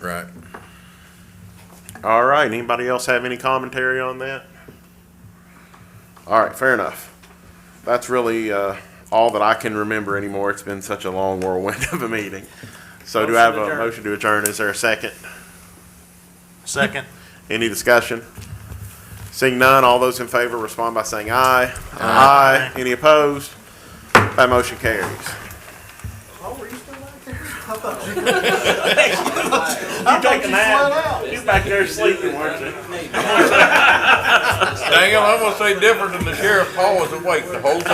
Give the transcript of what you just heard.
Right. All right, anybody else have any commentary on that? All right, fair enough. That's really, uh, all that I can remember anymore. It's been such a long whirlwind of a meeting. So do I have Motion to a adjourn. motion to adjourn? Is there a second? Second. Any discussion? Seeing none, all those in favor respond by saying aye. Aye. Any opposed? That motion carries. You take a nap. You back there sleeping, weren't you? Dang it, I'm gonna say different than the sheriff. Paul was awake the whole time.